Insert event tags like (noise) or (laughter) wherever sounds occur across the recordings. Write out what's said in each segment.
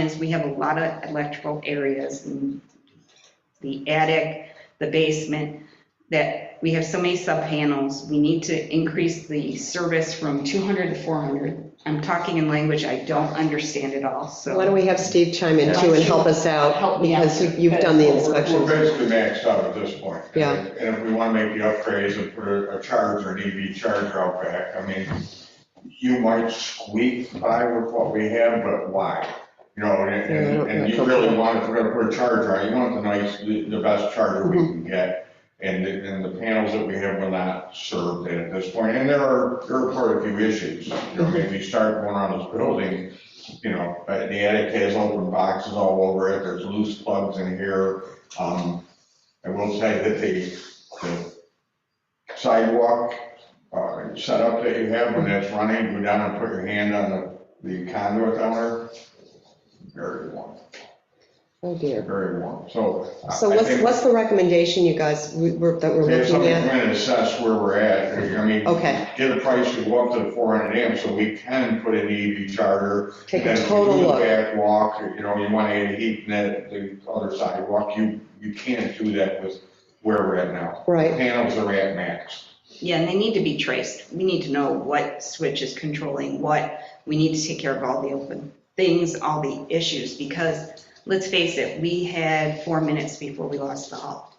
is we have a lot of electrical areas in the attic, the basement, that we have so many sub-panels. We need to increase the service from 200 to 400. I'm talking in language I don't understand at all, Why so. don't we have Steve chime in too and help us out? Help me out. Because you- you've done the We're inspections. basically maxed out at this point. Yeah. And if we want to make the upgrades and put a a charger, an EV charger out back, I mean, you might squeak by with what we have, but why? You know, and, Yeah, I and- don't- and you I don't- really want, if we're gonna put a charger out, you want the nice, the the best charger we can get. And, the- and the panels that we have will not serve that at this point. And there are, there are quite a few issues. You know, if you start going around this building, you know, uh, the attic has open boxes all over it, there's loose plugs in here. Um, I will say that the the sidewalk uh, setup that you have when that's running, go down and put your hand on the the conduit down there. Very warm, Oh, dear. very warm, so. Uh, I- So I what's, think what's the recommendation, you guys, we- we're- that we're They have looking something to at? come in and assess where we're at, I mean. Okay. Get a price to go up to four hundred amps, so we can put an EV charger Take And a then if you total do the look. Back walk, you know, you want to add heat in that, the other sidewalk, you, you can't do that with where we're at now. Right. Panels are at max. Yeah, and they need to be traced. We need to know what switch is controlling what. We need to take care of all the open things, all the issues, because let's face it, we had four minutes before we lost the hall.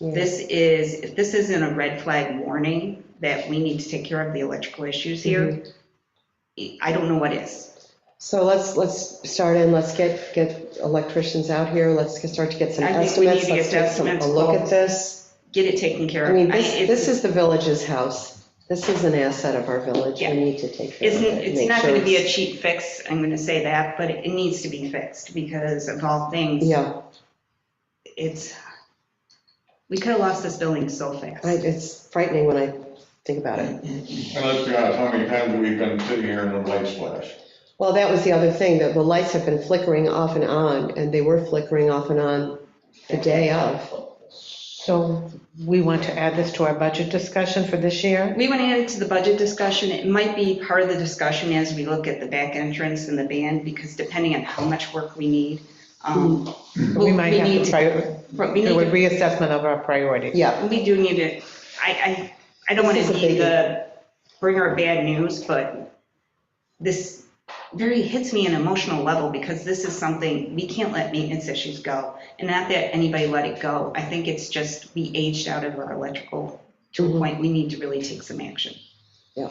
Yeah. This is, if this isn't a red flag warning that we need to take care of the electrical issues here, Mm-hmm. I don't know what is. So let's, let's start in, let's get, get electricians out here, let's get- start to get some I think we need estimates, to let's get take some, a estimates, look at quotes. this. Get it taken care of. I mean, this, it's- this is the village's house. This is an asset of our village. We Yeah. need to take care of Isn't, it. and it's make not sure going to be a it's- cheap fix, I'm going to say that, but it needs to be fixed because of all things. Yeah, It's, we could have lost this building so I- fast. it's frightening when I think about it. And let's be honest, how many times have we been sitting here in the light flash? Well, that was the other thing, that the lights have been flickering off and on, and they were flickering off and on the day of. So we want to add this to our budget discussion for this year? We want to add it to the budget discussion. It might be part of the discussion as we look at the back entrance and the band because depending on how much work we need, um, Mm-hmm. We might have need to- to, prior- but we need do to a reassessment of our priorities. Yeah, We do need to, I, I, I don't want This to is a be the bringer of bad news, but this very hits me on an emotional level because this is something, we can't let maintenance issues go. And not that anybody let it go. I think it's just we aged out of our electrical to Mm-hmm. a point we need to really take some action. I-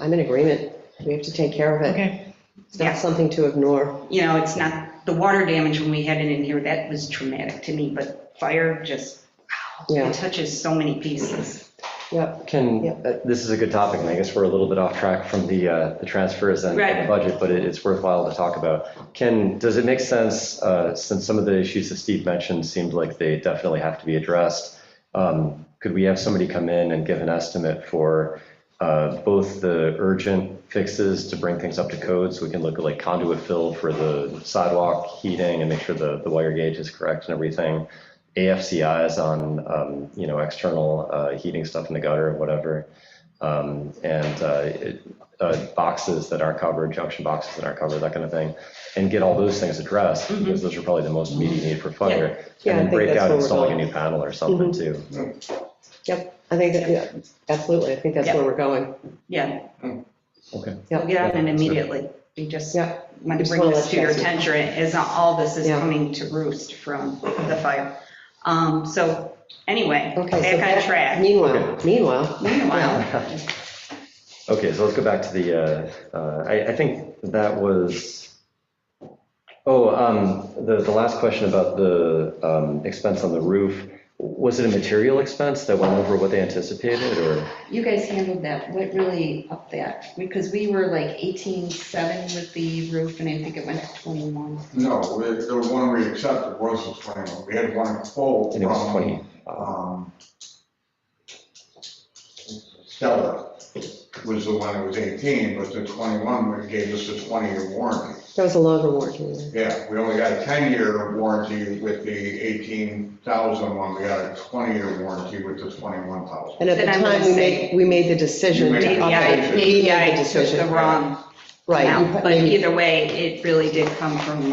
I'm in agreement. We have to take care of it. Okay, It's not Yeah. something to ignore. You know, it's not, the water damage when we had it in here, that was traumatic to me, but fire just, Yeah. it touches so many pieces. Yep, Can, Yep. uh, this is a good topic, and I guess we're a little bit off track from the, uh, the transfers and and Right. the budget, but it- it's worthwhile to talk about. Can, does it make sense, uh, since some of the issues that Steve mentioned seemed like they definitely have to be addressed, um, could we have somebody come in and give an estimate for uh, both the urgent fixes to bring things up to code, so we can look at like conduit fill for the sidewalk heating and make sure the, the wire gauge is correct and everything, AFCIs on, um, you know, external uh, heating stuff in the gutter or whatever, um, and uh, it- uh, boxes that aren't covered, junction boxes that aren't covered, that kind of thing, and get all those things addressed, because those are probably the most immediate need for fire. Mm-hmm. Yeah, I And then think break that's out where we're installing a going. Mm-hmm. new panel or something too. yep. I think that, yeah, absolutely. I think that's where we're going. Yeah, Okay. we'll get on it immediately. We just. Yeah, want to Just bring wanna this let to you your guys know. attention is all this is Yeah. coming to roost from the fire. Um, so anyway, okay. so back on track. Meanwhile, meanwhile. Meanwhile, (laughs) Okay, so let's go back to the, uh, uh, I I think that was, oh, um, the the last question about the um, expense on the roof, was it a material expense that went over what they anticipated, or? you guys handled that. What really upped that? Because we were like eighteen-seven with the roof and I think it went to twenty-one. No, we- the one we accepted was the twenty-one, we had one full I think it from, was 20. um, Stella was the one that was eighteen, but the twenty-one, we gave us a twenty-year warranty. That was a longer warranty. Yeah, we only got a 10-year warranty with the 18,000 one, we got a 20-year warranty with the 21,000. And at the Then I'm gonna time, we say- made, we made the decision You to made up the it. decision. We made API the took the decision. wrong Right. you now, put- but maybe- either way, it really did come from